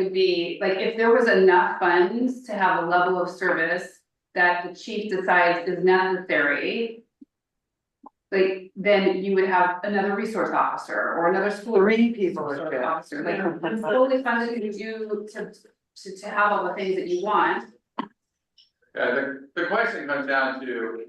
would be, like, if there was enough funds to have a level of service that the chief decides is necessary. Like, then you would have another resource officer or another school. Three people resource are good. Officer, like, it's fully funded to do, to, to, to have all the things that you want. Yeah, the, the question comes down to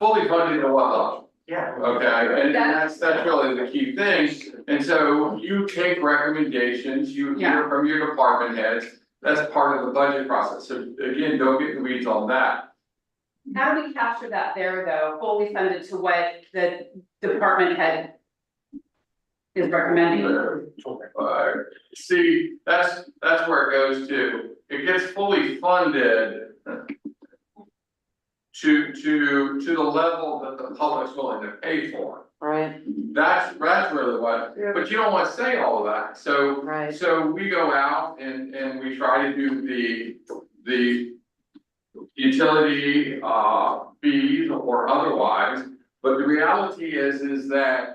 fully funded to what level, Yeah. okay, and That's- that's, that's really the key thing. And so you take recommendations, you hear from your department heads, that's part of the budget process, so again, don't get in the weeds on that. How do we capture that there, though, fully funded to what the department head is recommending? Uh, see, that's, that's where it goes to, it gets fully funded. To, to, to the level that the public's willing to pay for. Right, That's, that's really what, but you don't wanna say all of that, so, right, so we go out and, and we try to do the, the. Utility, uh, fees or otherwise, but the reality is, is that.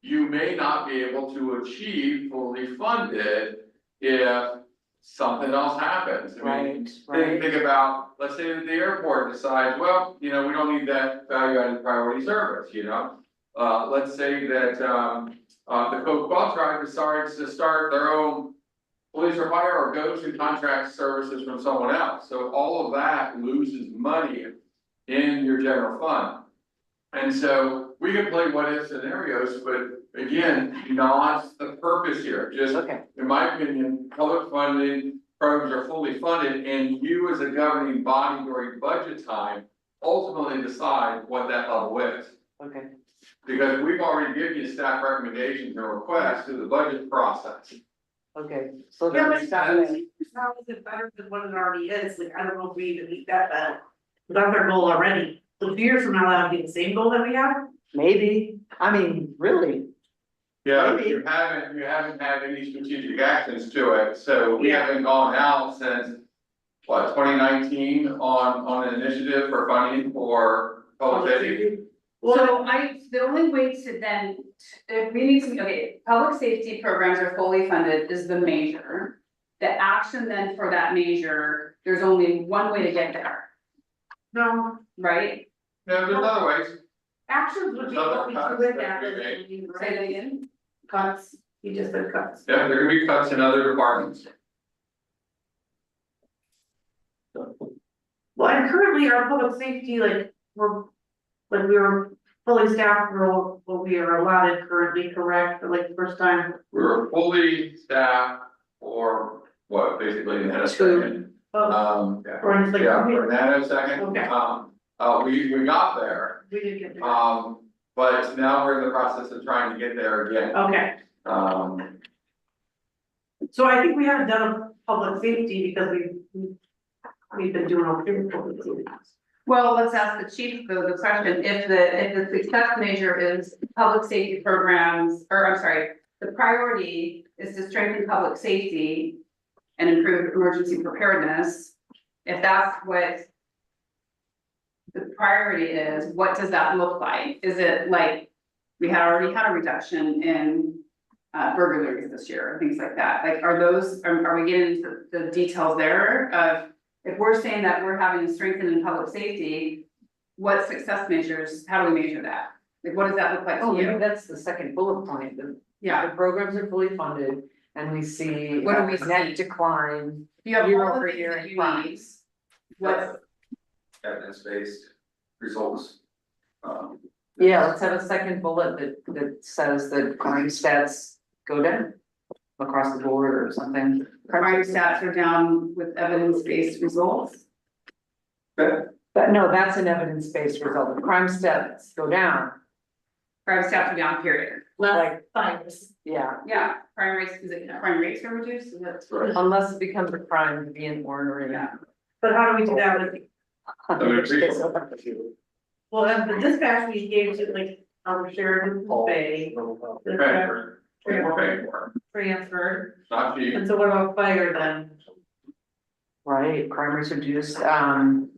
You may not be able to achieve fully funded if something else happens, I mean, right, Think, right, think about, let's say that the airport decides, well, you know, we don't need that value added priority service, you know? Uh, let's say that, um, uh, the Coke Bell Tribe decides to start their own police or fire or go to contract services from someone else, so all of that loses money in your general fund. And so we can play what if scenarios, but again, not the purpose here, just okay, in my opinion, public funding programs are fully funded and you as a governing body during budget time ultimately decide what that level is. okay, Because we've already given you staff recommendations and requests through the budget process. okay, so Yeah, then but it's how not is it better than what it already is, like, I don't know if we even need that, but that's our goal already, so two years from now, that'll be the same goal that we have. maybe, I mean, really, Yeah. Maybe. You haven't, you haven't had any strategic actions to it, so we Yeah. haven't gone out since, what, twenty nineteen on, on an initiative for funding for public safety? Well, So I, the only way to then, if we need to, okay, public safety programs are fully funded is the measure. The action then for that measure, there's only one way to get there, no, right? No, there's other ways. actions would be what we do with that, Another concept Say that right? again, Cuts, you just said cuts. Yeah, there can be cuts in other departments. Well, and currently our public safety, like, we're, like, we were fully staffed, for all what we are allotted currently, correct, for like the first time. We were fully staffed for what, basically in that Two. second, Oh, um, yeah, or it's like, for we- that second. Okay. Um, uh, we, we got there, Oh, we did get there, um, but now we're in the process of trying to get there again, okay. um, So I think we haven't done public safety because we, we've been doing all three public safety. well, let's ask the chief though the question, if the, if the success measure is public safety programs, or I'm sorry. The priority is to strengthen public safety and improve emergency preparedness. If that's what. The priority is, what does that look like? Is it like, we had already had a reduction in. Uh, burglaries this year, things like that, like are those, are, are we getting into the details there of? If we're saying that we're having a strengthen in public safety, what success measures, how do we measure that? Like, what does that look like to oh, maybe you? that's the second bullet point, the, Yeah, the programs are fully funded. And we see What do uh, we net see? decline, You have Year all the over things year that in you crime. need. What, evidence-based results. Um, yeah, let's have a second bullet that that says that crime stats go down. Across the board or something, crime stats are down with evidence-based results? but no, that's an evidence-based result, The crime stats go down, Crime stats are down, period. like, fires. yeah. Yeah, crime rates, is it, crime rates are reduced, is that? right, Unless it becomes a crime to be an ornery. Yeah. But how do we do that with, mean, it's reasonable. well, and the dispatch we gave to like, um, Sheridan Bay. we're paying for it. We're paying for it. Transferred, It's not cheap. and so what about fire then? Right, crime rates reduced, um,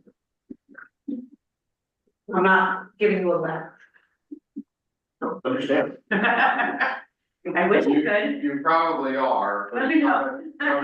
I'm not giving you a laugh. Understand. I wish you could, You probably are. but Let me know. I'm